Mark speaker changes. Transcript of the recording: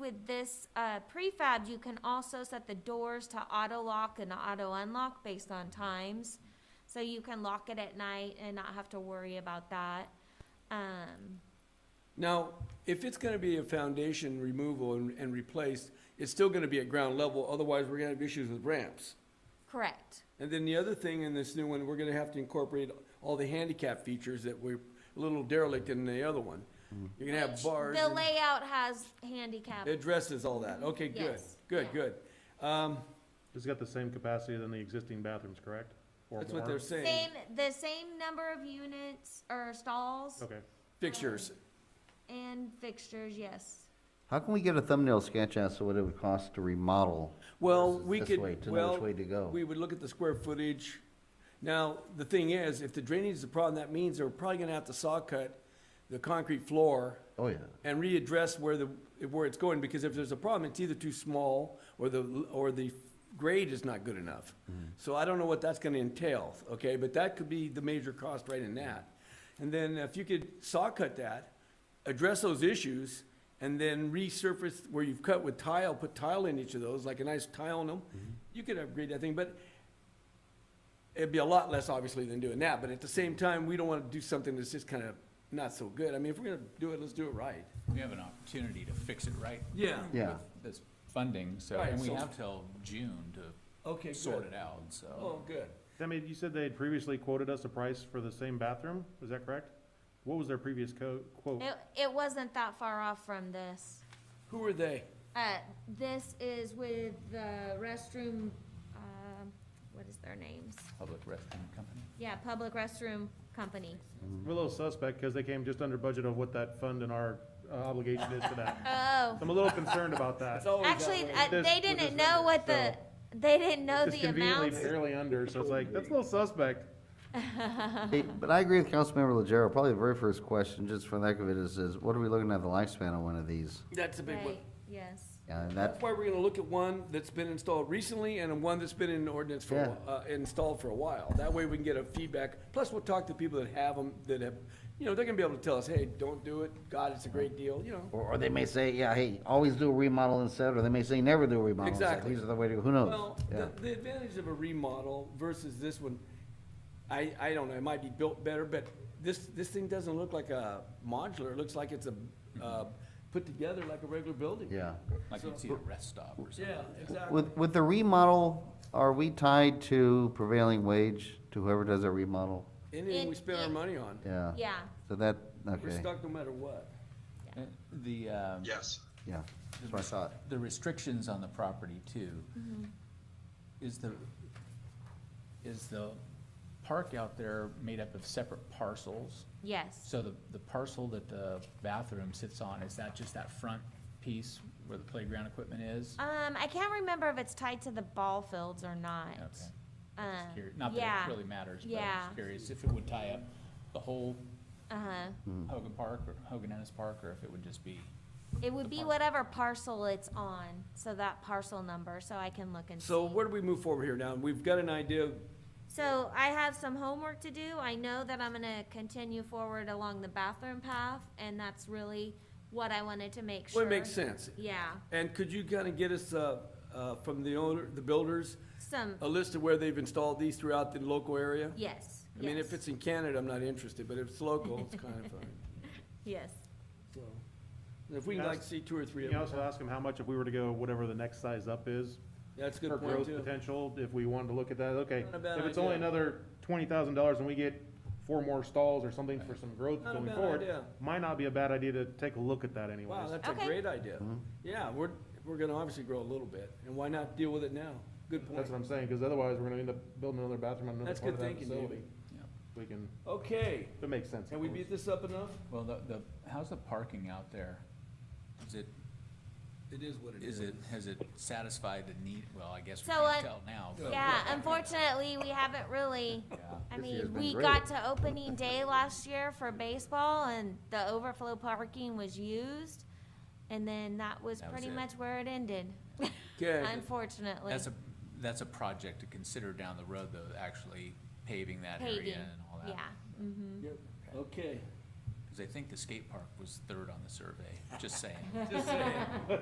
Speaker 1: with this, uh, prefab, you can also set the doors to auto lock and auto unlock based on times. So you can lock it at night and not have to worry about that. Um,
Speaker 2: Now, if it's gonna be a foundation removal and, and replaced, it's still gonna be at ground level, otherwise we're gonna have issues with ramps.
Speaker 1: correct,
Speaker 2: And then the other thing in this new one, we're gonna have to incorporate all the handicap features that were a little derelict in the other one. You're gonna have bars.
Speaker 1: the
Speaker 2: and-
Speaker 1: layout has handicap,
Speaker 2: It addresses all that. Okay, good,
Speaker 1: Yes,
Speaker 2: good,
Speaker 1: yeah.
Speaker 2: good. Um,
Speaker 3: It's got the same capacity than the existing bathrooms, correct? Or
Speaker 2: that's what
Speaker 3: more?
Speaker 2: they're saying.
Speaker 1: same, the same number of units or stalls
Speaker 3: Okay.
Speaker 2: Fixtures.
Speaker 1: and fixtures, yes.
Speaker 4: How can we get a thumbnail sketch as to what it would cost to remodel?
Speaker 2: Well,
Speaker 4: versus
Speaker 2: we
Speaker 4: this way,
Speaker 2: could,
Speaker 4: To know
Speaker 2: well,
Speaker 4: which way to go.
Speaker 2: we would look at the square footage. Now, the thing is, if the drainage is a problem, that means they're probably gonna have to saw cut the concrete floor
Speaker 4: Oh, yeah.
Speaker 2: and readdress where the, where it's going, because if there's a problem, it's either too small or the, or the grade is not good enough. So I don't know what that's gonna entail, okay, but that could be the major cost right in that. And then if you could saw cut that, address those issues, and then resurface where you've cut with tile, put tile in each of those, like a nice tile in them, you could upgrade that thing, but it'd be a lot less obviously than doing that, but at the same time, we don't wanna do something that's just kinda not so good. I mean, if we're gonna do it, let's do it right.
Speaker 5: We have an opportunity to fix it right.
Speaker 2: Yeah.
Speaker 4: Yeah.
Speaker 5: with This funding, so,
Speaker 2: Right,
Speaker 5: and we
Speaker 2: so-
Speaker 5: have till June to
Speaker 2: Okay,
Speaker 5: sort
Speaker 2: good.
Speaker 5: it out, so.
Speaker 2: Oh, good.
Speaker 3: I mean, you said they had previously quoted us a price for the same bathroom, is that correct? What was their previous co- quote?
Speaker 1: It, it wasn't that far off from this.
Speaker 2: Who are they?
Speaker 1: Uh, this is with the restroom, um, what is their names?
Speaker 5: Public restroom company.
Speaker 1: Yeah, Public Restroom Company.
Speaker 3: I'm a little suspect, because they came just under budget of what that fund and our uh, obligation is to that.
Speaker 1: Oh,
Speaker 3: I'm a little concerned about that.
Speaker 2: It's always that
Speaker 1: actually,
Speaker 2: way.
Speaker 1: uh,
Speaker 3: This-
Speaker 1: they
Speaker 3: with
Speaker 1: didn't
Speaker 3: this
Speaker 1: know
Speaker 3: number,
Speaker 1: what the, they didn't know
Speaker 3: It's
Speaker 1: the
Speaker 3: conveniently
Speaker 1: amounts.
Speaker 3: barely under, so it's like, that's a little suspect.
Speaker 4: Hey, But I agree with Councilmember Legero. Probably the very first question, just for the heck of it, is, is what are we looking at the lifespan on one of these?
Speaker 2: That's a big one.
Speaker 1: Right, Yes,
Speaker 4: Yeah, and
Speaker 2: That's
Speaker 4: that,
Speaker 2: why we're gonna look at one that's been installed recently and one that's been in ordinance for, a
Speaker 4: Yeah.
Speaker 2: whi- uh, installed for a while. That way we can get a feedback. Plus, we'll talk to people that have them, that have, you know, they're gonna be able to tell us, hey, don't do it. God, it's a great deal, you know.
Speaker 4: or, or they may say, yeah, hey, always do a remodel instead, or they may say never do a remodel instead.
Speaker 2: Exactly.
Speaker 4: These are the way to, go. who knows?
Speaker 2: Well,
Speaker 4: Yeah.
Speaker 2: the, the advantage of a remodel versus this one, I, I don't know, it might be built better, but this, this thing doesn't look like a modular. It looks like it's a, uh, put together like a regular building.
Speaker 4: Yeah.
Speaker 5: Like you'd see at a rest stop or something.
Speaker 2: Yeah, exactly.
Speaker 4: With, with the remodel, are we tied to prevailing wage, to whoever does a remodel?
Speaker 2: Anything we
Speaker 1: It-
Speaker 2: spend our
Speaker 1: it-
Speaker 2: money on,
Speaker 4: Yeah.
Speaker 1: yeah.
Speaker 4: So that,
Speaker 2: we're
Speaker 4: okay,
Speaker 2: stuck no matter what.
Speaker 5: Uh, The, um,
Speaker 6: Yes.
Speaker 4: yeah, that's what I thought.
Speaker 5: the restrictions on the property too.
Speaker 2: Mm-hmm.
Speaker 5: Is the, is the park out there made up of separate parcels?
Speaker 1: Yes,
Speaker 5: So the, the parcel that the bathroom sits on, is that just that front piece where the playground equipment is?
Speaker 1: um, I can't remember if it's tied to the ball fields or not.
Speaker 5: Okay.
Speaker 1: Um,
Speaker 5: Just curi- Not that
Speaker 1: yeah,
Speaker 5: it really matters, but I'm
Speaker 1: yeah.
Speaker 5: just curious if it would tie up the whole
Speaker 1: Uh-huh,
Speaker 5: Hogan Park or Hogan Ennis Park, or if it would just be,
Speaker 1: it would be whatever parcel it's on, so that parcel number, so I can look and see.
Speaker 2: So where do we move forward here now? We've got an idea, of-
Speaker 1: So I have some homework to do. I know that I'm gonna continue forward along the bathroom path, and that's really what I wanted to make sure.
Speaker 2: well, it makes sense.
Speaker 1: Yeah,
Speaker 2: And could you kind of get us, uh, uh, from the owner, the builders,
Speaker 1: some,
Speaker 2: a list of where they've installed these throughout the local area?
Speaker 1: yes,
Speaker 2: I mean, if
Speaker 1: yes,
Speaker 2: it's in Canada, I'm not interested, but if it's local, it's kind of fine,
Speaker 1: Yes,
Speaker 2: so. And If we can like see two or three
Speaker 3: You
Speaker 2: of
Speaker 3: can
Speaker 2: them,
Speaker 3: also ask them how much if we were to go whatever the next size up is,
Speaker 2: that's a
Speaker 3: for
Speaker 2: good point
Speaker 3: growth
Speaker 2: too.
Speaker 3: potential, if we wanted to look at that, okay.
Speaker 2: Not a bad
Speaker 3: If it's only
Speaker 2: idea.
Speaker 3: another twenty thousand dollars and we get four more stalls or something for some growth
Speaker 2: Not a
Speaker 3: going
Speaker 2: bad
Speaker 3: forward,
Speaker 2: idea.
Speaker 3: might not be a bad idea to take a look at that
Speaker 2: Wow,
Speaker 3: anyways.
Speaker 2: that's a
Speaker 1: Okay.
Speaker 2: great idea.
Speaker 4: Mm-hmm.
Speaker 2: Yeah, we're, we're gonna obviously grow a little bit, and why not deal with it now? Good point.
Speaker 3: That's what I'm saying, cause otherwise we're gonna end up building another bathroom on another
Speaker 2: That's
Speaker 3: part
Speaker 2: good
Speaker 3: of that
Speaker 2: thinking,
Speaker 3: facility.
Speaker 2: David.
Speaker 3: We can,
Speaker 2: Okay,
Speaker 3: if it makes sense. of
Speaker 2: can we
Speaker 3: course.
Speaker 2: beat this up enough?
Speaker 5: well, the, the, how's the parking out there? Is it,
Speaker 2: It is what
Speaker 5: is it, has it satisfied the need, well, I guess we
Speaker 1: So, uh,
Speaker 5: can't tell now. but-
Speaker 1: yeah, unfortunately, we haven't really,
Speaker 5: Yeah.
Speaker 1: I
Speaker 4: This year's
Speaker 1: mean,
Speaker 4: been
Speaker 1: we
Speaker 4: great.
Speaker 1: got to opening day last year for baseball, and the overflow parking was used, and then that was
Speaker 5: That was
Speaker 1: pretty
Speaker 5: it.
Speaker 1: much where it ended,
Speaker 2: Okay.
Speaker 1: unfortunately.
Speaker 5: That's a, that's a project to consider down the road, though, actually paving that area
Speaker 1: Paving,
Speaker 5: and all that.
Speaker 1: Yeah,
Speaker 2: Yep. Okay.
Speaker 5: Because I think the skate park was third on the survey, just saying.
Speaker 2: Just saying.